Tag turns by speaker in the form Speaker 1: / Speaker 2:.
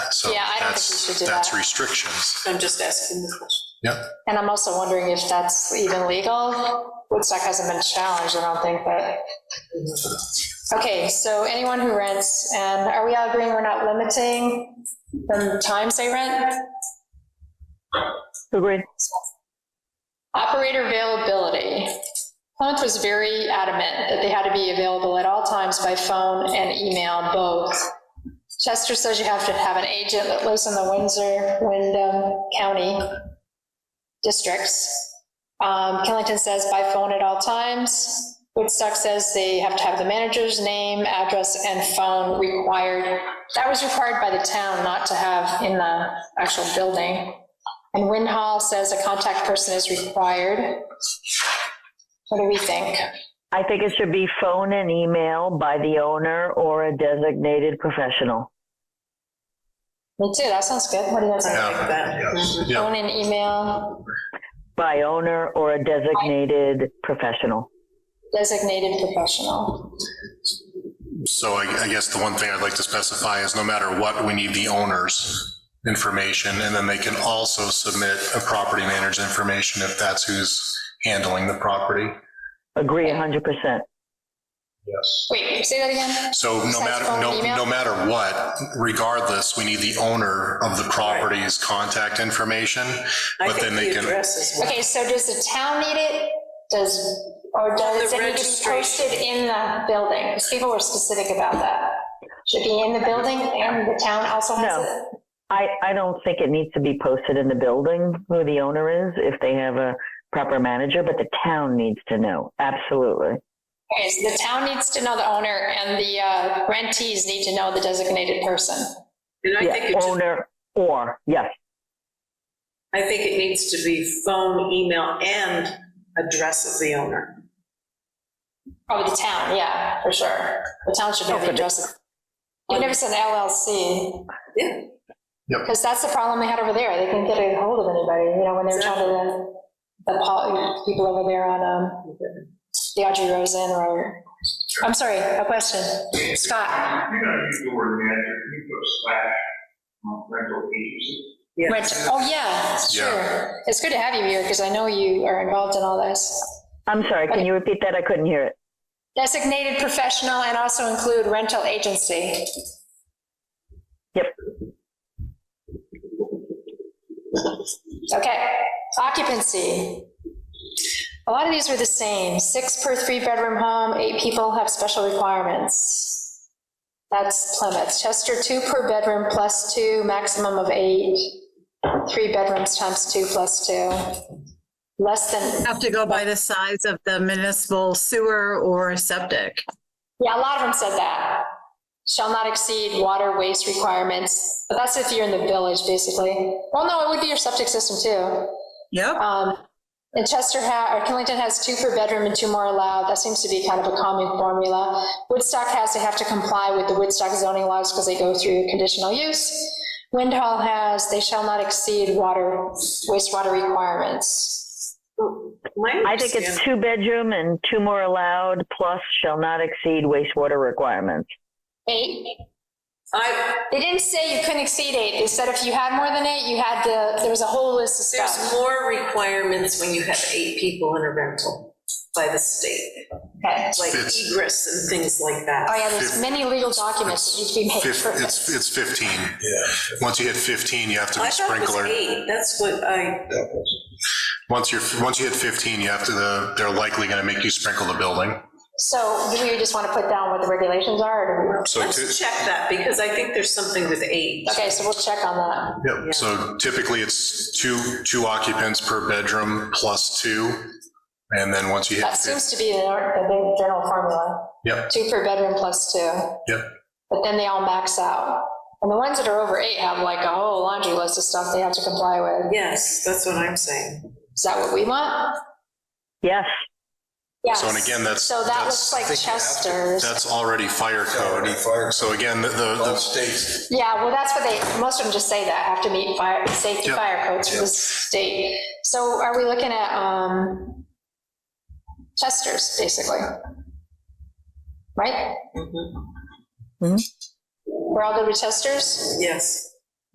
Speaker 1: we
Speaker 2: that's,
Speaker 1: should do
Speaker 2: that's
Speaker 1: that.
Speaker 2: restrictions.
Speaker 1: I'm just asking the question.
Speaker 2: Yep.
Speaker 3: And I'm also wondering if that's even legal. Woodstock hasn't been challenged, I don't think, but. Okay, so anyone who rents, and are we all agreeing we're not limiting the times they rent?
Speaker 4: Agreed.
Speaker 3: Operator availability. Plymouth was very adamant that they had to be available at all times by phone and email both. Chester says you have to have an agent that lives in the Windsor, Wyndham County districts. Um, Killington says by phone at all times. Woodstock says they have to have the manager's name, address, and phone required. That was required by the town not to have in the actual building. And Winhall says a contact person is required. What do we think?
Speaker 4: I think it should be phone and email by the owner or a designated professional.
Speaker 3: Me too, that sounds good. What do you guys think?
Speaker 2: Yeah, yes, yeah.
Speaker 3: Phone and email,
Speaker 4: By owner or a designated professional.
Speaker 3: designated professional.
Speaker 2: So I, I guess the one thing I'd like to specify is no matter what, we need the owner's information, and then they can also submit a property manager's information if that's who's handling the property.
Speaker 4: Agree 100%.
Speaker 2: Yes.
Speaker 3: Wait, say that again?
Speaker 2: So no
Speaker 3: Besides
Speaker 2: matter,
Speaker 3: phone,
Speaker 2: no,
Speaker 3: email?
Speaker 2: no matter what, regardless, we need the owner of the property's contact information.
Speaker 1: I
Speaker 2: But then
Speaker 1: think
Speaker 2: they
Speaker 1: the
Speaker 2: can-
Speaker 1: address is what.
Speaker 3: Okay, so does the town need it? Does, or does
Speaker 1: The
Speaker 3: it need to be
Speaker 1: registration.
Speaker 3: posted in the building? Because people were specific about that. Should be in the building and the town also has
Speaker 4: No.
Speaker 3: it?
Speaker 4: I, I don't think it needs to be posted in the building who the owner is if they have a proper manager, but the town needs to know. Absolutely.
Speaker 3: Okay, so the town needs to know the owner and the uh, rentees need to know the designated person.
Speaker 1: And I
Speaker 4: Yeah,
Speaker 1: think it just,
Speaker 4: owner or, yes,
Speaker 1: I think it needs to be phone, email, and address of the owner.
Speaker 3: Oh, the town, yeah, for sure. The town should know the address. You never said LLC,
Speaker 1: Yeah,
Speaker 3: because that's the problem they had over there. They couldn't get a hold of anybody, you know, when they were talking to the, the pol- people over there on, um, the Audrey Rosen or, I'm sorry, a question. Scott,
Speaker 5: You're not using the word manager, you put slash um, rental agency.
Speaker 1: yeah.
Speaker 3: Rich, oh, yeah, sure. It's good to have you here, because I know you are involved in all this.
Speaker 4: I'm sorry, can you repeat that? I couldn't hear it.
Speaker 3: Designated professional and also include rental agency.
Speaker 4: Yep.
Speaker 3: Okay, occupancy. A lot of these were the same, six per three-bedroom home, eight people have special requirements. That's Plymouth, Chester, two per bedroom plus two, maximum of eight, three bedrooms times two plus two, less than,
Speaker 6: Have to go by the size of the municipal sewer or septic.
Speaker 3: yeah, a lot of them said that. Shall not exceed water waste requirements, but that's if you're in the village, basically. Well, no, it would be your septic system too.
Speaker 6: Yep.
Speaker 3: Um, And Chester ha, or Killington has two per bedroom and two more allowed. That seems to be kind of a common formula. Woodstock has, they have to comply with the Woodstock zoning laws because they go through conditional use. Windhall has, they shall not exceed water, wastewater requirements.
Speaker 4: I think it's two bedroom and two more allowed, plus shall not exceed wastewater requirements.
Speaker 3: Eight,
Speaker 1: I,
Speaker 3: they didn't say you couldn't exceed eight. They said if you had more than eight, you had the, there was a whole list of stuff.
Speaker 1: there's more requirements when you have eight people in a rental by the state,
Speaker 3: Okay.
Speaker 1: like
Speaker 2: It's-
Speaker 1: egress and things like
Speaker 3: Oh,
Speaker 1: that.
Speaker 3: yeah, there's many legal documents that need to be made
Speaker 2: Fif-
Speaker 3: for
Speaker 2: It's,
Speaker 3: this. Oh,
Speaker 2: it's 15. Once you hit 15, you have to
Speaker 1: I
Speaker 2: be
Speaker 1: thought it was
Speaker 2: sprinkler.
Speaker 1: eight, that's what I,
Speaker 2: Once you're, once you hit 15, you have to, the- they're likely going to make you sprinkle the building.
Speaker 3: So do we just want to put down what the regulations are? or do
Speaker 2: So ty-
Speaker 1: let's check that, because I think there's something with eight.
Speaker 3: we- Okay, so we'll check on that.
Speaker 2: Yep, so typically it's two, two occupants per bedroom plus two. And then once you hit,
Speaker 3: That
Speaker 2: fif-
Speaker 3: seems to be the nor- the big general formula,
Speaker 2: yep,
Speaker 3: two per bedroom plus two.
Speaker 2: Yep.
Speaker 3: But then they all max out. And the ones that are over eight have like a whole laundry list of stuff they have to comply with.
Speaker 1: Yes, that's what I'm saying.
Speaker 3: Is that what we want?
Speaker 4: Yes,
Speaker 3: Yes.
Speaker 2: So, and again, that's-
Speaker 3: So that
Speaker 2: that's-
Speaker 3: looks like Chester's.
Speaker 2: that's already fire code.
Speaker 7: fire
Speaker 2: So again, the, the-
Speaker 7: all
Speaker 2: the,
Speaker 7: states.
Speaker 3: Yeah, well, that's what they, most of them just say that, have to meet fire, safety
Speaker 2: Yeah.
Speaker 3: fire codes for the state. So are we looking at, um, Chester's, basically? Right?
Speaker 1: Mhm.
Speaker 3: We're all good with Chester's?
Speaker 1: Yes.